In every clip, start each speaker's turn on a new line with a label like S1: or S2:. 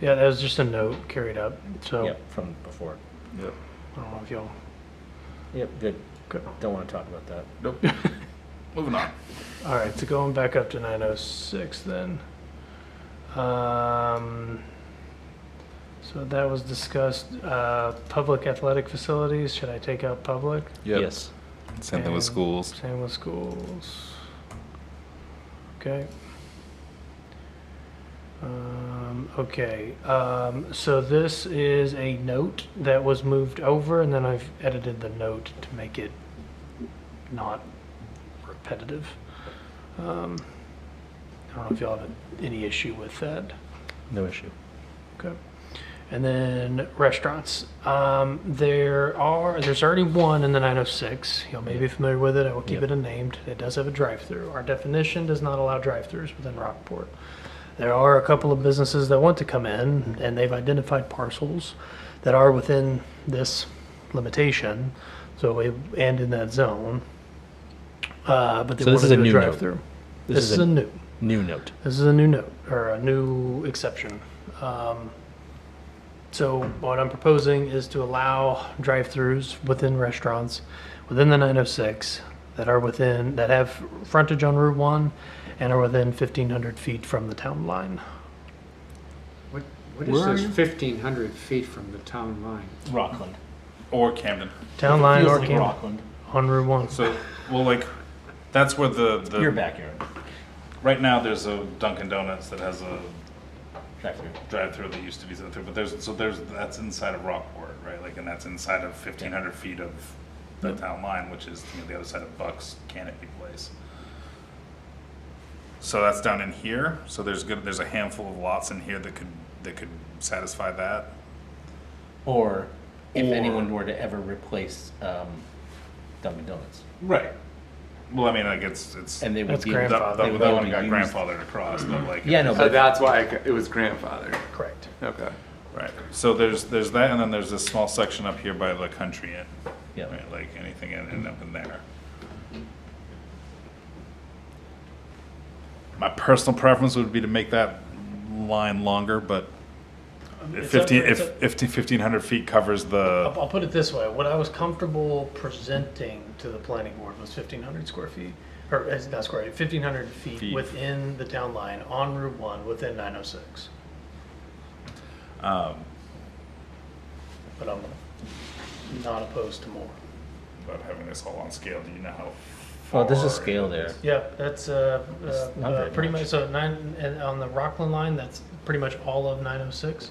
S1: Yeah, that was just a note carried up, so
S2: Yep, from before.
S3: Yep.
S1: I don't know if y'all,
S2: Yep, good.
S1: Good.
S2: Don't want to talk about that.
S3: Nope. Moving on.
S1: all right, so going back up to 906 then. Um, so that was discussed, uh, public athletic facilities, should I take out public?
S2: Yes.
S3: Same thing
S1: And
S3: with schools.
S1: Same with schools. Okay. Um, okay, um, so this is a note that was moved over, and then I've edited the note to make it not repetitive. Um, I don't know if y'all have any issue with that.
S2: No issue.
S1: Okay. And then restaurants. Um, there are there's already one in the 906. Y'all may be familiar with it. I will keep
S2: Yep.
S1: it unnamed. It does have a drive-through. Our definition does not allow drive-throughs within Rockport. There are a couple of businesses that want to come in, and they've identified parcels that are within this limitation. So it, and in that zone, uh, but they
S2: So
S1: want
S2: this
S1: to
S2: is a
S1: do
S2: new note.
S1: drive-through. This,
S2: This is
S1: is
S2: a-
S1: a new.
S2: New note.
S1: This is a new note, or a new exception. Um, So what I'm proposing is to allow drive-throughs within restaurants, within the 906, that are within, that have frontage on Route 1 and are within 1,500 feet from the town line.
S4: What, what
S3: Where are
S4: is
S3: you?
S4: this fifteen hundred feet from the town line?
S5: Rockland.
S3: Or Camden.
S1: Town line
S5: Feels
S1: or
S5: like
S1: Camden,
S5: Rockland.
S1: on Route 1.
S3: So, well, like, that's where the, the
S5: Your backyard.
S3: right now there's a Dunkin' Donuts that has a
S5: Drive-through.
S3: drive-through that used to be drive-through, but there's so there's that's inside of Rockport, right? Like, and that's inside of 1,500 feet of the town line, which is you know, the other side of Bucks Canopy Place. So that's down in here. So there's good. There's a handful of lots in here that could that could satisfy that.
S5: Or if
S3: Or-
S5: anyone were to ever replace um, Dunkin' Donuts,
S3: Right. Well, I mean, like it's it's
S5: and they would
S1: That's
S5: be.
S3: that,
S5: able to-
S3: that,
S1: grandfathered.
S5: they would
S3: that
S5: be
S3: one
S5: able
S3: got
S5: to use-
S3: grandfathered across, but like
S5: Yeah, no,
S6: So
S5: but
S6: Uh, that's why I c it was grandfathered.
S1: Correct.
S6: Okay.
S3: Right. So there's there's that, and then there's this small section up here by the country inn.
S5: yeah.
S3: Right, like anything in, in up in there. My personal preference would be to make that line longer, but
S1: It's
S3: if
S1: up-
S3: fifteen,
S1: it's
S3: if
S1: up-
S3: fifteen, fifteen hundred feet covers
S1: I'll,
S3: the,
S1: I'll put it this way, what I was comfortable presenting to the planning board was fifteen hundred square feet, or, uh, not square, fifteen hundred feet
S3: Feet.
S1: within the town line on Route one, within nine oh six.
S3: um,
S1: But I'm not opposed to more.
S3: about having this all on scale, do you know how?
S2: Well, Oh, there's a
S3: far-
S2: scale there.
S1: Yeah, that's, uh,
S2: That's
S1: uh,
S2: not
S1: uh,
S2: very
S1: pretty
S2: much.
S1: much, so nine, and on the Rockland line, that's pretty much all of nine oh six.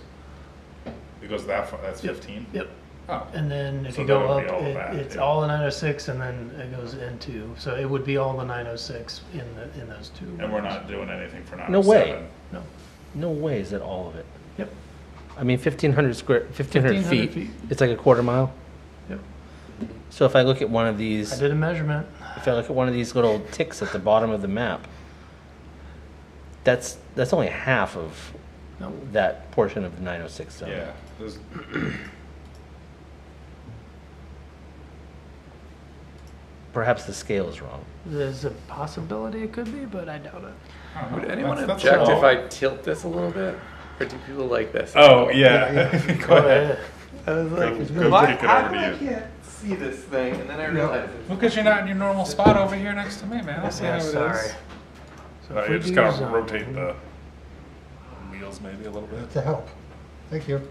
S3: It goes that far, that's fifteen?
S1: Yep.
S3: Oh,
S1: And then if
S3: So
S1: you
S3: that
S1: go
S3: would be
S1: up,
S3: all of that,
S1: it- it's
S3: yeah.
S1: all the nine oh six and then it goes into, so it would be all the nine oh six in the, in those two.
S3: and we're
S1: lanes.
S3: not doing anything for nine
S2: No
S3: oh
S2: way.
S3: seven.
S1: No.
S2: No way is that all of it.
S1: Yep.
S2: I mean, 1,500 square, 1,500
S1: 1,500
S2: feet, it's like a quarter mile.
S1: Yep.
S2: So if I look at one of
S1: I
S2: these,
S1: did a measurement.
S2: if I look at one of these little ticks at the bottom of the map, that's, that's only half of
S1: No.
S2: that portion of the 906 zone.
S3: Yeah, there's,
S2: Perhaps the scale is wrong.
S1: There's a possibility it could be, but I doubt it.
S3: I don't know.
S6: Would anyone
S3: Uh-huh. That's- that's
S6: object if
S3: all.
S6: I tilt this a little bit? Or do people like this?
S3: Oh, yeah. Go ahead.
S6: I was
S3: like, why- how come I
S6: can't see this thing? And then I realized it's
S3: Because you're not in your normal spot over here next to me, man.
S1: Yeah, sorry. So if
S3: you
S1: we
S3: Oh, just
S1: do
S3: gotta
S1: zone-
S3: rotate the wheels maybe a little bit.
S7: to help. Thank you.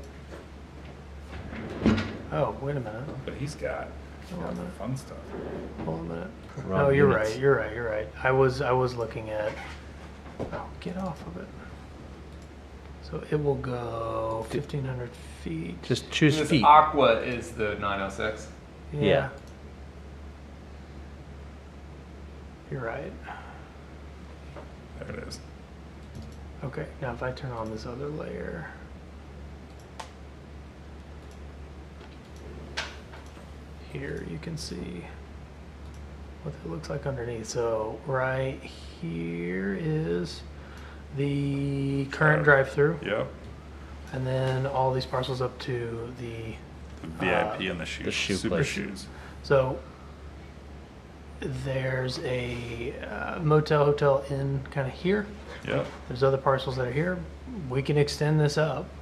S1: Oh, wait a minute.
S3: But he's got he's got the fun stuff.
S1: Hold on a minute.
S2: Wrong
S1: No, Oh, you're
S2: units.
S1: right. You're right. You're right. I was I was looking at. Oh, get off of it. So it will go 1,500 feet.
S2: Just choose
S6: this
S2: feet.
S6: aqua is the 906.
S2: yeah.
S1: You're right.
S3: There it is.
S1: Okay. Now if I turn on this other layer. Here you can see what it looks like underneath. So right here is the current
S3: Current.
S1: drive-through,
S3: Yep.
S1: and then all these parcels up to the.
S3: The VIP and the shoes.
S2: the shoe
S3: Super
S2: place.
S3: shoes.
S1: So there's a uh, motel, hotel, inn kind of here.
S3: Yep.
S1: There's other parcels that are here. We can extend this up